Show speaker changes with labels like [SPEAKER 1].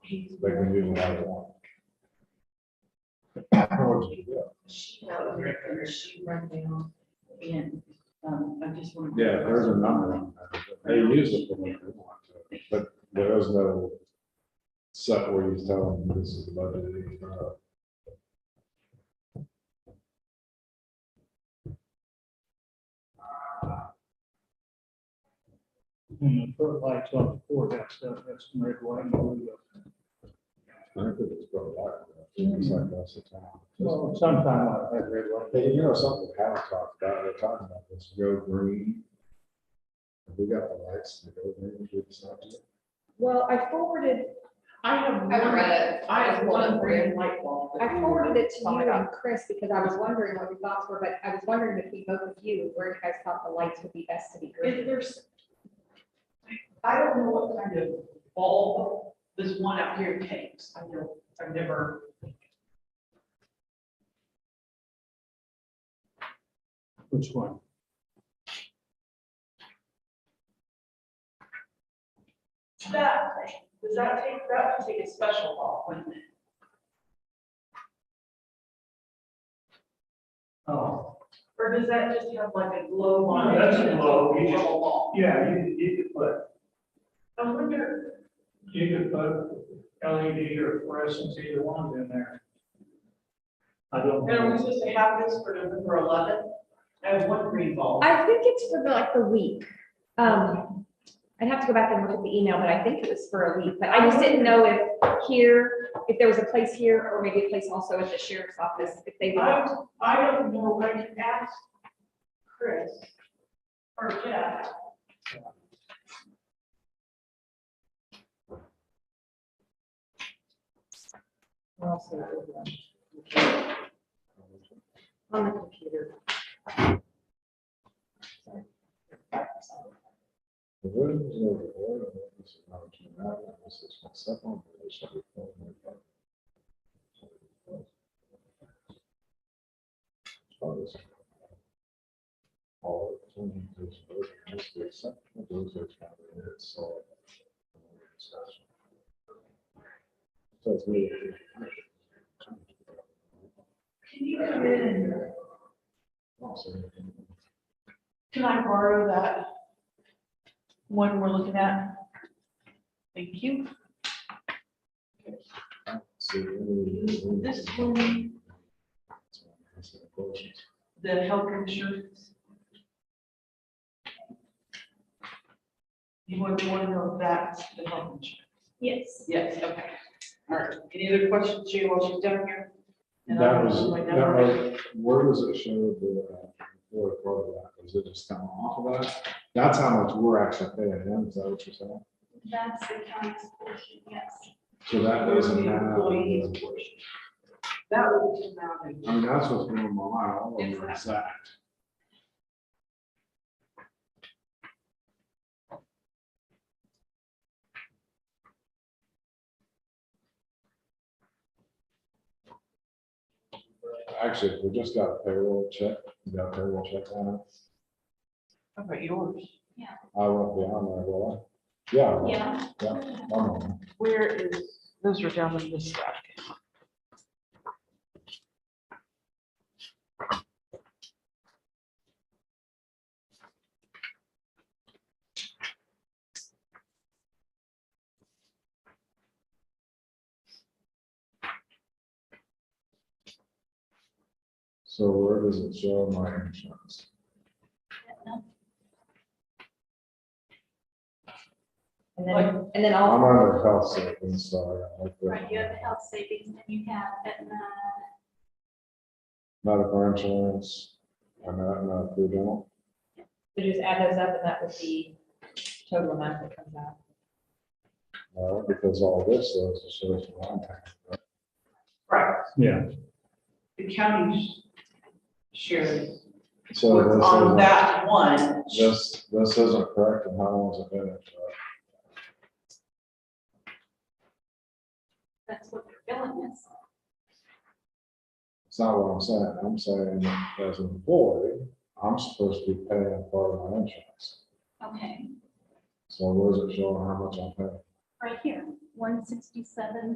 [SPEAKER 1] He's
[SPEAKER 2] like we
[SPEAKER 1] very-
[SPEAKER 2] do when I want.
[SPEAKER 1] She helped me, and she run down and, um, I just want.
[SPEAKER 2] Yeah, there's a number on that. They use it for what they want to, but there is no set where you tell them this is the budget. it is not.
[SPEAKER 3] And the foot lights on the floor, that's, that's red, white, and blue.
[SPEAKER 2] I think it's probably like that. It's like that's the time.
[SPEAKER 3] Well, sometime I have red, white.
[SPEAKER 2] Hey, you know, something we haven't talked about, we're talking about this, go green. Have We got the lights to go green, we decided.
[SPEAKER 4] Well, I forwarded,
[SPEAKER 1] I have one,
[SPEAKER 5] I read it.
[SPEAKER 1] I have one green light bulb. that
[SPEAKER 4] I
[SPEAKER 1] you
[SPEAKER 4] forwarded it to
[SPEAKER 1] thought
[SPEAKER 4] you
[SPEAKER 1] about.
[SPEAKER 4] and Chris because I was wondering what your thoughts were, but I was wondering between both of you, where you guys thought the lights would be best to be
[SPEAKER 1] If
[SPEAKER 4] green.
[SPEAKER 1] there's, I don't know what kind of bulb this one out here takes. I don't, I've never.
[SPEAKER 3] Which one?
[SPEAKER 1] That, thing, does that take, that would take a special bulb, wouldn't it?
[SPEAKER 6] Oh,
[SPEAKER 1] Or does that just have like a glow on it?
[SPEAKER 6] That's a glow, you just-
[SPEAKER 1] Little bulb.
[SPEAKER 6] yeah, you, you could put,
[SPEAKER 1] I wonder,
[SPEAKER 6] you could put LED or fluorescence, either one in there. I don't
[SPEAKER 1] and we're
[SPEAKER 6] know.
[SPEAKER 1] supposed to have this for November eleventh. I have one green bulb.
[SPEAKER 4] I think it's for the, like the week. Um, I'd have to go back and look at the email, but I think it was for a week, but I just didn't know if here, if there was a place here or maybe a place also at the sheriff's office, if they would.
[SPEAKER 1] I, I don't know, I can ask Chris or Jeff.
[SPEAKER 4] On the computer.
[SPEAKER 2] The room is over there, and this is not too bad, and this is my second, but it's not a problem. Oh, this- All of them, this vote, just the exception of those that's not in it, so. So it's really-
[SPEAKER 1] Can you come in and,
[SPEAKER 2] Awesome.
[SPEAKER 1] can I borrow that one we're looking at? Thank you.
[SPEAKER 2] So, really-
[SPEAKER 1] This one, the health insurance. You want to want to know if that's the health insurance?
[SPEAKER 4] Yes.
[SPEAKER 1] Yes, okay. All right. Any other questions, Jay, while she's down here? And
[SPEAKER 2] That
[SPEAKER 1] I'll
[SPEAKER 2] was,
[SPEAKER 1] put my
[SPEAKER 2] that
[SPEAKER 1] number in.
[SPEAKER 2] was, where does it show the, uh, what part of that, is it just kind of off of that? That's how much we're actually paying him, is that what you're saying?
[SPEAKER 5] That's the county's portion, yes.
[SPEAKER 2] So that
[SPEAKER 1] Where's the
[SPEAKER 2] doesn't have.
[SPEAKER 1] employees
[SPEAKER 2] the-
[SPEAKER 1] portion? That would be
[SPEAKER 2] I mean, that's what's going on, I don't know
[SPEAKER 1] It's
[SPEAKER 2] that. Actually, we just got a payroll check, we got a payroll check on it.
[SPEAKER 1] How about yours?
[SPEAKER 2] I won't be on there, will I? Yeah. I will.
[SPEAKER 5] Yeah.
[SPEAKER 2] I'm on
[SPEAKER 1] Where is, those are down in this stack.
[SPEAKER 2] So where does it show my insurance?
[SPEAKER 4] And then, and then all.
[SPEAKER 2] I'm under health savings, so. I don't
[SPEAKER 5] Right,
[SPEAKER 2] like
[SPEAKER 5] you have the
[SPEAKER 2] that.
[SPEAKER 5] health savings, and uh, you have Aetna,
[SPEAKER 2] Medical insurance, and not, not through dental.
[SPEAKER 4] So just add those up and that would be total amount that comes out.
[SPEAKER 2] No, because all this is, is sort of one time.
[SPEAKER 1] Right,
[SPEAKER 3] Yeah.
[SPEAKER 1] the county's share
[SPEAKER 2] So
[SPEAKER 1] was
[SPEAKER 2] this
[SPEAKER 1] on
[SPEAKER 2] isn't,
[SPEAKER 1] that one.
[SPEAKER 2] this, this isn't correct, and how long has it been? uh,
[SPEAKER 5] that's what they're billing us.
[SPEAKER 2] It's not what I'm saying, I'm saying as an employee, I'm supposed to be paying part of my insurance.
[SPEAKER 5] Okay,
[SPEAKER 2] So where's it showing how much I'm paying?
[SPEAKER 5] right here. one sixty-seven